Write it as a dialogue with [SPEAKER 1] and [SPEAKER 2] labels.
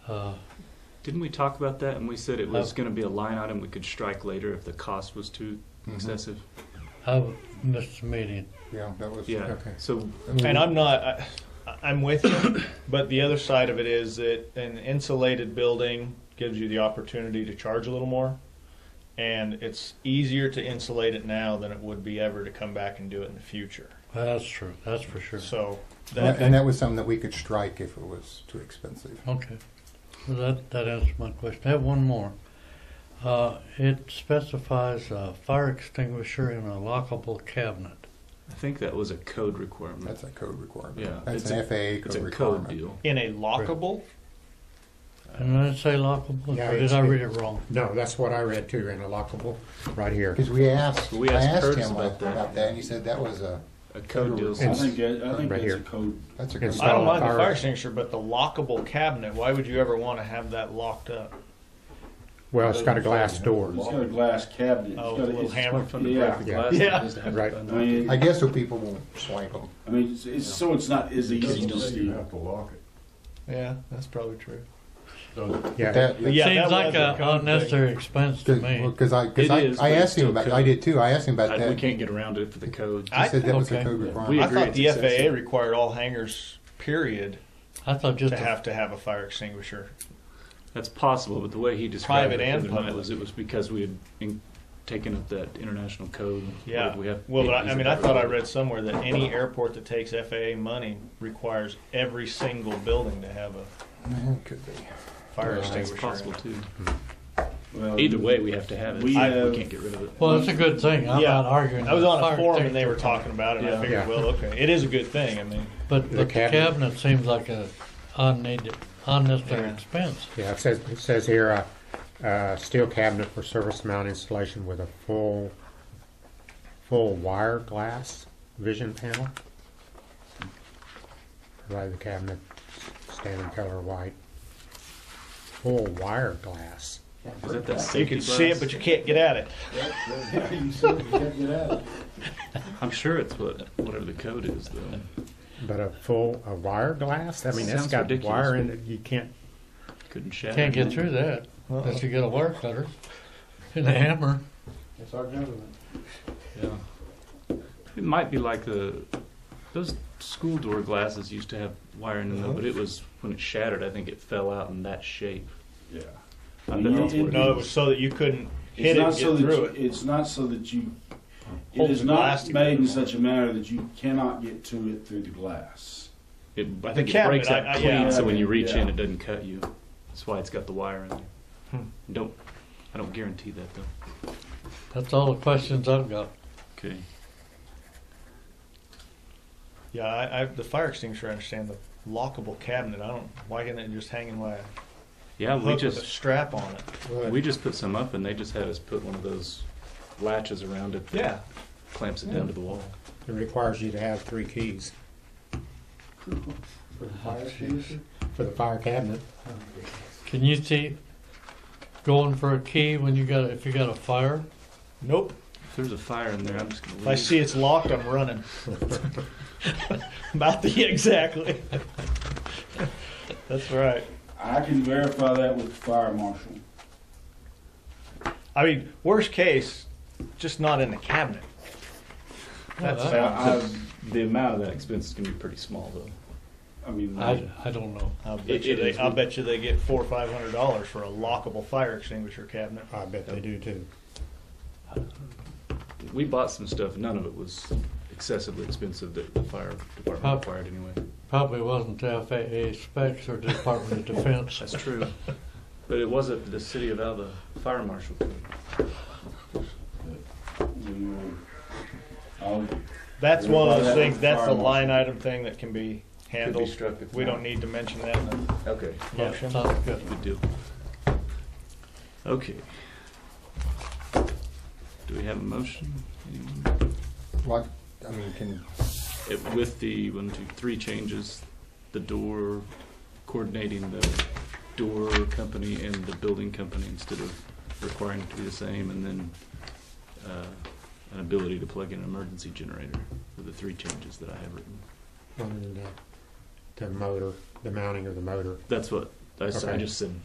[SPEAKER 1] Uh,
[SPEAKER 2] Didn't we talk about that and we said it was
[SPEAKER 1] Oh.
[SPEAKER 2] gonna be a line item we could strike later if the cost was too excessive?
[SPEAKER 1] I missed the meeting.
[SPEAKER 3] Yeah, that was,
[SPEAKER 2] Yeah,
[SPEAKER 3] okay.
[SPEAKER 2] so,
[SPEAKER 3] we-
[SPEAKER 4] And I'm not, I, I'm with you, but the other side of it is that an insulated building gives you the opportunity to charge a little more. And it's easier to insulate it now than it would be ever to come back and do it in the future.
[SPEAKER 1] Well, that's true. That's for sure.
[SPEAKER 4] So
[SPEAKER 3] And
[SPEAKER 4] that,
[SPEAKER 3] that was something that we could strike if it was too expensive.
[SPEAKER 1] Okay. Well, that, that answers my question. I have one more. Uh, it specifies a fire extinguisher in a lockable cabinet.
[SPEAKER 2] I think that was a code requirement.
[SPEAKER 3] That's a code requirement.
[SPEAKER 2] Mm. Yeah,
[SPEAKER 3] That's
[SPEAKER 2] it's
[SPEAKER 3] an
[SPEAKER 2] a-
[SPEAKER 3] FAA
[SPEAKER 2] It's
[SPEAKER 3] code
[SPEAKER 2] a code
[SPEAKER 3] requirement.
[SPEAKER 2] deal.
[SPEAKER 4] in a lockable,
[SPEAKER 1] And did I say lockable?
[SPEAKER 5] Yeah,
[SPEAKER 1] or did
[SPEAKER 5] it's-
[SPEAKER 1] I read it wrong?
[SPEAKER 5] No, that's what I read too, in a lockable, right here.
[SPEAKER 3] Because we asked,
[SPEAKER 2] We
[SPEAKER 3] I
[SPEAKER 2] asked
[SPEAKER 3] asked
[SPEAKER 2] Curtis
[SPEAKER 3] him
[SPEAKER 2] about
[SPEAKER 3] about
[SPEAKER 2] that.
[SPEAKER 3] about that and he said that was a,
[SPEAKER 2] A code deal.
[SPEAKER 3] It's-
[SPEAKER 6] I think, that- I think
[SPEAKER 5] Right
[SPEAKER 6] that's
[SPEAKER 5] here.
[SPEAKER 6] a code.
[SPEAKER 3] that's a
[SPEAKER 5] It's
[SPEAKER 3] good.
[SPEAKER 4] I don't
[SPEAKER 5] Install
[SPEAKER 4] mind the
[SPEAKER 5] fire-
[SPEAKER 4] fire extinguisher, but the lockable cabinet, why would you ever want to have that locked up?
[SPEAKER 5] Well, it's got a glass
[SPEAKER 6] It's
[SPEAKER 5] door.
[SPEAKER 6] got a glass cabinet.
[SPEAKER 4] Oh, with
[SPEAKER 6] It's got
[SPEAKER 4] a little
[SPEAKER 6] it's-
[SPEAKER 4] hammer.
[SPEAKER 2] From the
[SPEAKER 6] Yeah.
[SPEAKER 2] break the glass.
[SPEAKER 4] Yeah.
[SPEAKER 2] it is to have
[SPEAKER 5] Right.
[SPEAKER 2] a
[SPEAKER 6] I
[SPEAKER 2] knob.
[SPEAKER 6] mean,
[SPEAKER 3] I guess so people won't swank them.
[SPEAKER 6] I mean, it's, it's so it's not as easy to steal.
[SPEAKER 7] to lock it.
[SPEAKER 4] Yeah, that's probably true.
[SPEAKER 5] Yeah,
[SPEAKER 3] That,
[SPEAKER 4] Yeah, that
[SPEAKER 1] Seems like
[SPEAKER 4] was a
[SPEAKER 1] an
[SPEAKER 4] code
[SPEAKER 1] unnecessary expense to me.
[SPEAKER 3] because I, because
[SPEAKER 2] It
[SPEAKER 3] I,
[SPEAKER 2] is,
[SPEAKER 3] I
[SPEAKER 2] but it's
[SPEAKER 3] asked him
[SPEAKER 2] still
[SPEAKER 3] about,
[SPEAKER 2] code.
[SPEAKER 3] I did too, I asked him about
[SPEAKER 2] I- We
[SPEAKER 3] that. He
[SPEAKER 2] can't get around it for the code.
[SPEAKER 4] I-
[SPEAKER 3] said that was a
[SPEAKER 1] okay.
[SPEAKER 3] code
[SPEAKER 1] Yeah.
[SPEAKER 2] We
[SPEAKER 3] requirement.
[SPEAKER 4] I
[SPEAKER 2] agree
[SPEAKER 4] thought
[SPEAKER 2] it's
[SPEAKER 4] the
[SPEAKER 2] excessive.
[SPEAKER 4] FAA required all hangars, period,
[SPEAKER 1] I thought just
[SPEAKER 4] to
[SPEAKER 1] a
[SPEAKER 4] have to have a fire extinguisher.
[SPEAKER 2] That's possible, but the way he described it
[SPEAKER 4] Private
[SPEAKER 2] the
[SPEAKER 4] and
[SPEAKER 2] other night
[SPEAKER 4] public.
[SPEAKER 2] was it was because we had in- taken up that international code.
[SPEAKER 4] Yeah,
[SPEAKER 2] What We have.
[SPEAKER 4] well, but I, I mean, I thought I read somewhere that any airport that takes FAA money requires every single building to have a
[SPEAKER 3] It Could be.
[SPEAKER 4] fire
[SPEAKER 2] It's
[SPEAKER 4] extinguisher. in it.
[SPEAKER 2] possible too.
[SPEAKER 6] Well,
[SPEAKER 2] Either way, we have to have it.
[SPEAKER 6] We
[SPEAKER 2] I-
[SPEAKER 6] have-
[SPEAKER 2] we can't get rid of it.
[SPEAKER 1] Well, it's a good thing. I'm
[SPEAKER 4] Yeah.
[SPEAKER 1] not arguing.
[SPEAKER 4] I was
[SPEAKER 1] that
[SPEAKER 4] on
[SPEAKER 1] fire
[SPEAKER 4] a forum and they were
[SPEAKER 1] extinguisher-
[SPEAKER 4] talking about it. and I
[SPEAKER 2] Yeah.
[SPEAKER 4] figured,
[SPEAKER 5] Yeah.
[SPEAKER 4] well, okay, it is a good thing. I mean,
[SPEAKER 1] But, but the
[SPEAKER 5] cabinet.
[SPEAKER 1] cabinet seems like a unneeded, unnecessary
[SPEAKER 4] Yeah.
[SPEAKER 1] expense.
[SPEAKER 5] yeah, it says, it says here, uh, uh, steel cabinet for surface mount installation with a full, full wire glass vision panel. Provide the cabinet standard color white. Full wire glass.
[SPEAKER 2] Is that that
[SPEAKER 4] you
[SPEAKER 2] safety
[SPEAKER 4] can
[SPEAKER 2] glass?
[SPEAKER 4] see it, but you can't get at it.
[SPEAKER 7] You said you can't get out of it.
[SPEAKER 2] I'm sure it's what whatever the code is though.
[SPEAKER 5] But a full, a wire glass? I mean, that's
[SPEAKER 2] Sounds
[SPEAKER 5] got
[SPEAKER 2] ridiculous,
[SPEAKER 5] wire in
[SPEAKER 2] but-
[SPEAKER 5] it, you can't,
[SPEAKER 2] Couldn't shatter.
[SPEAKER 1] Can't get through that unless you get a wire cutter and a hammer.
[SPEAKER 7] It's our government.
[SPEAKER 2] Yeah. It might be like the those school door glasses used to have wiring
[SPEAKER 4] Uh-huh.
[SPEAKER 2] in them, but it was when it shattered. I think it fell out in that shape.
[SPEAKER 7] Yeah.
[SPEAKER 2] I bet that's what it
[SPEAKER 4] No, it was so that you couldn't hit
[SPEAKER 6] It's
[SPEAKER 4] it,
[SPEAKER 6] not
[SPEAKER 4] and
[SPEAKER 6] so
[SPEAKER 4] get through
[SPEAKER 6] that, you-
[SPEAKER 4] it.
[SPEAKER 6] it's not so that you, it
[SPEAKER 4] Hold
[SPEAKER 6] is
[SPEAKER 4] the
[SPEAKER 6] not
[SPEAKER 4] glass
[SPEAKER 6] made in
[SPEAKER 4] together.
[SPEAKER 6] such a manner that you cannot get to it through the glass.
[SPEAKER 2] It, I think it
[SPEAKER 4] cabinet,
[SPEAKER 2] breaks out
[SPEAKER 4] I- I-
[SPEAKER 2] clean,
[SPEAKER 4] yeah,
[SPEAKER 2] so when
[SPEAKER 6] okay,
[SPEAKER 2] you reach in,
[SPEAKER 6] yeah.
[SPEAKER 2] it doesn't cut you. That's why it's got the wire in there.
[SPEAKER 1] Hmm.
[SPEAKER 2] Don't, I don't guarantee that though.
[SPEAKER 1] That's all the questions I've got.
[SPEAKER 2] Okay.
[SPEAKER 4] Yeah, I, I, the fire extinguisher. I understand the lockable cabinet. I don't. Why can't it just hang in my
[SPEAKER 2] Yeah, we
[SPEAKER 4] hook with a
[SPEAKER 2] just
[SPEAKER 4] strap on it?
[SPEAKER 2] we just put some up, and they just had us put one of those latches around it that
[SPEAKER 4] Yeah,
[SPEAKER 2] clamps it down to the wall.
[SPEAKER 5] it requires you to have three keys
[SPEAKER 7] For the fire station.
[SPEAKER 5] for the fire cabinet.
[SPEAKER 1] Can you see going for a key when you got if you got a fire?
[SPEAKER 4] Nope.
[SPEAKER 2] If there's a fire in there, I'm just gonna.
[SPEAKER 4] If I
[SPEAKER 2] leave.
[SPEAKER 4] see it's locked, I'm running. About the exactly. That's right.
[SPEAKER 6] I can verify that with the fire marshal.
[SPEAKER 4] I mean, worst case, just not in the cabinet. That's
[SPEAKER 1] Well,
[SPEAKER 4] I,
[SPEAKER 6] I,
[SPEAKER 2] the amount of that expense is gonna be pretty small though.
[SPEAKER 6] I, I mean,
[SPEAKER 1] I, I don't know.
[SPEAKER 4] I'll bet
[SPEAKER 2] It-
[SPEAKER 4] you
[SPEAKER 2] it
[SPEAKER 4] they,
[SPEAKER 2] is-
[SPEAKER 4] I'll bet you they get four or five hundred dollars for a lockable fire extinguisher cabinet.
[SPEAKER 5] I bet they do too.
[SPEAKER 2] We bought some stuff. None of it was excessively expensive that the fire
[SPEAKER 1] Huh.
[SPEAKER 2] department required anyway.
[SPEAKER 1] Probably wasn't the FAA specs or Department of Defense.
[SPEAKER 2] That's true. But it wasn't the city of Alba fire marshal.
[SPEAKER 6] you know, I'll,
[SPEAKER 4] That's
[SPEAKER 6] We'll
[SPEAKER 4] one
[SPEAKER 6] buy
[SPEAKER 4] of those
[SPEAKER 6] that
[SPEAKER 4] things.
[SPEAKER 6] with
[SPEAKER 4] That's
[SPEAKER 6] fire
[SPEAKER 4] a line item thing that can be
[SPEAKER 2] Could be
[SPEAKER 4] handled.
[SPEAKER 2] struck if
[SPEAKER 4] We
[SPEAKER 2] not.
[SPEAKER 4] don't need to mention that in the
[SPEAKER 2] Okay.
[SPEAKER 1] Yeah,
[SPEAKER 4] motion.
[SPEAKER 1] sounds good.
[SPEAKER 2] Good deal. Okay. Do we have a motion? Anyone?
[SPEAKER 3] Like, I mean, can,
[SPEAKER 2] It- With the one, two, three changes, the door, coordinating the door company and the building company instead of requiring it to be the same, and then uh, an ability to plug in an emergency generator were the three changes that I have written.
[SPEAKER 5] on uh, the, the motor, the mounting of the motor.
[SPEAKER 2] That's what I s- I
[SPEAKER 5] Okay.
[SPEAKER 2] just said